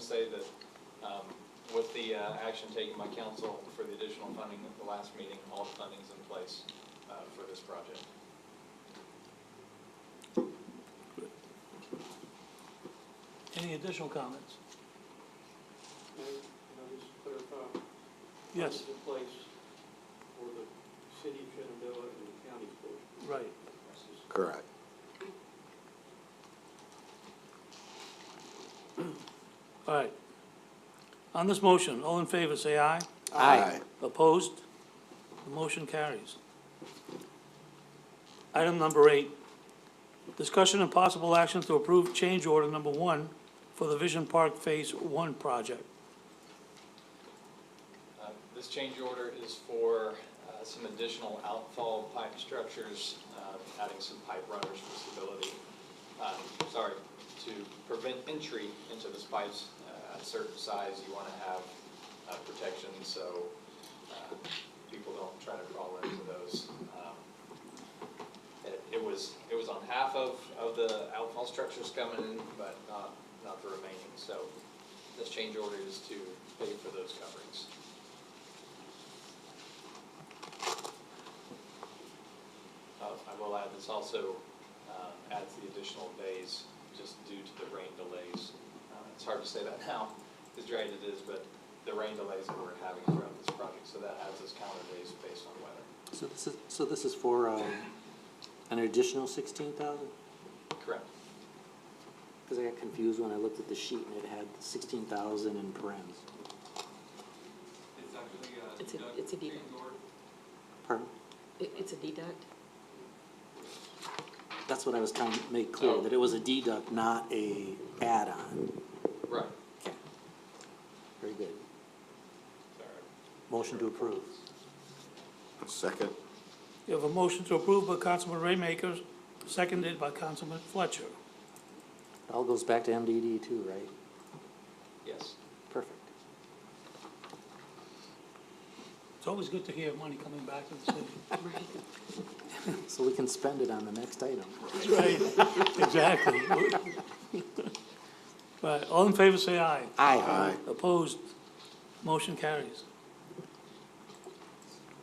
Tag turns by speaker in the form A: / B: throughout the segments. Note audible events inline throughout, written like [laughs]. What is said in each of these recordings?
A: say that um, with the uh, action taken by council for the additional funding at the last meeting, all the funding's in place uh, for this project.
B: Any additional comments?
C: Mayor, can I just clarify?
B: Yes,
C: This is a place for the city of Shenandoah and the county portion.
B: right.
C: That's just-
D: Correct.
B: All right. On this motion, all in favor, say aye.
D: Aye.
B: Opposed? The motion carries. Item number eight, discussion and possible action to approve change order number one for the Vision Park Phase One project.
A: Uh, This change order is for uh, some additional outfall pipe structures, uh, adding some pipe runners for stability, uh, sorry, to prevent entry into the pipes uh, at a certain size. You want to have uh, protection so uh, people don't try to crawl into those. Um, It it was, it was on half of, of the outfall structures coming in, but not, not the remaining. So this change order is to pay for those coverings. Uh, I will add, this also uh, adds the additional days just due to the rain delays. Uh, It's hard to say that [laughs] now, as dry as it is, but the rain delays that we're having throughout this project, so that adds us counter days based on weather.
E: So this is, so this is for, um, an additional sixteen thousand?
A: Correct.
E: Cause I got confused when I looked at the sheet and it had sixteen thousand in parentheses.
F: It's actually a
G: It's a-
F: duct
G: it's a
F: change
G: deduct.
F: order.
E: Pardon?
G: It, it's a deduct?
E: That's what I was trying to make clear, that it was a deduct, not a add-on.
A: Right.
E: Very good.
A: Sorry.
E: Motion to approve.
D: Second.
B: You have a motion to approve by Councilman Raymaker, seconded by Councilman Fletcher.
E: It all goes back to MDD too, right?
A: Yes.
E: Perfect.
B: It's always good to hear money coming back to the city.
G: Right.
E: So we can spend it on the next item.
B: Right, exactly. Right, all in favor, say aye.
D: Aye.
B: Opposed, motion carries.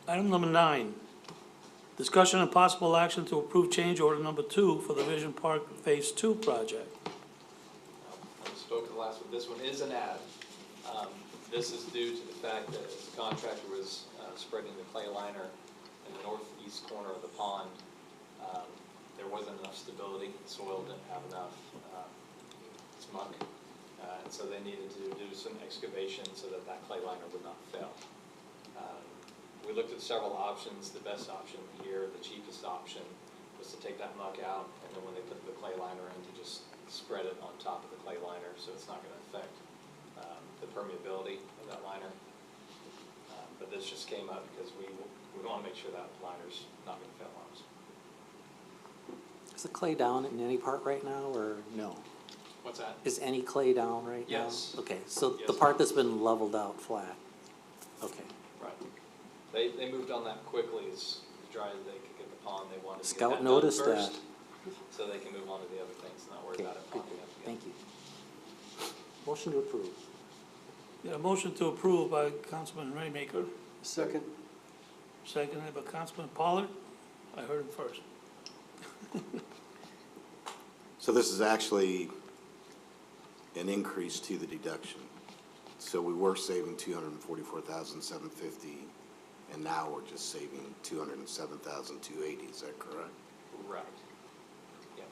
B: Item number nine, discussion and possible action to approve change order number two for the Vision Park Phase Two project.
A: I spoke to the last one, this one is an ad. Um, This is due to the fact that the contractor was uh, spreading the clay liner in the northeast corner of the pond. Um, There wasn't enough stability, the soil didn't have enough uh, smuck, Uh, and so they needed to do some excavation so that that clay liner would not fail. Um, We looked at several options, the best option here, the cheapest option, was to take that muck out, and then when they put the clay liner in, to just spread it on top of the clay liner, so it's not gonna affect um, the permeability of that liner. Uh, But this just came up because we, we wanna make sure that liner's not gonna fail on us.
E: Is the clay down in any part right now, or no?
A: What's that?
E: Is any clay down right now?
A: Yes.
E: Okay, so the
A: Yes.
E: part that's been leveled out flat, okay.
A: Right. They, they moved on that quickly, as dry as they could get the pond, they wanted to get that
E: Scout
A: done
E: noticed that.
A: first, So they can move on to the other things, not worry
E: Okay,
A: about it
E: good,
A: popping up again.
E: thank you. Motion to approve.
B: Yeah, motion to approve by Councilman Raymaker,
C: Second.
B: seconded by Councilman Pollard. I heard him first.
D: So this is actually an increase to the deduction. So we were saving two hundred and forty-four thousand, seven fifty, and now we're just saving two hundred and seven thousand, two eighty, is that correct?
A: Right. Yeah.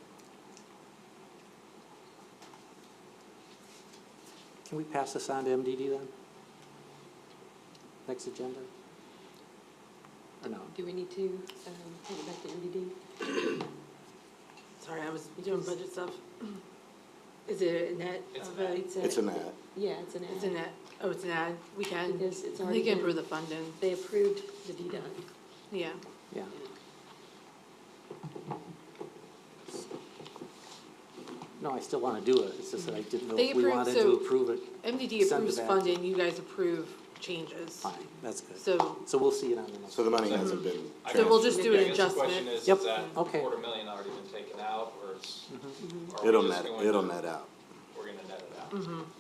E: Can we pass this on to MDD then? Next agenda? Or no?
G: Do we need to, um, take it back to MDD? Sorry, I was doing budget stuff.
H: [clears throat] Is it a net
A: It's
H: of
A: an ad.
H: a,
D: It's an ad.
G: Uh, Yeah, it's an ad.
H: it's a net, oh, it's an ad, we can,
G: Because it's
H: we
G: already
H: can
G: been-
H: approve the funding,
G: They approved the deduct.
H: yeah.
E: Yeah. No, I still want to do it, it's just that I didn't know
H: They
E: if we
H: approved,
E: wanted to
H: so-
E: approve it. Send
H: MDD
E: it
H: approves
E: back.
H: funding, you guys approve changes,
E: Fine, that's good.
H: so,
E: So we'll see it on the next.
D: So the money hasn't been
A: I
H: So we'll
A: guess-
H: just do an
A: I guess the question
H: adjustment.
A: is,
E: Yep.
A: is that
E: Okay. Mm-hmm.
A: quarter million already been taken out, or it's? are we
D: It'll
A: just
D: net,
A: going
D: it'll
A: to-
D: net out.
A: We're gonna net it out.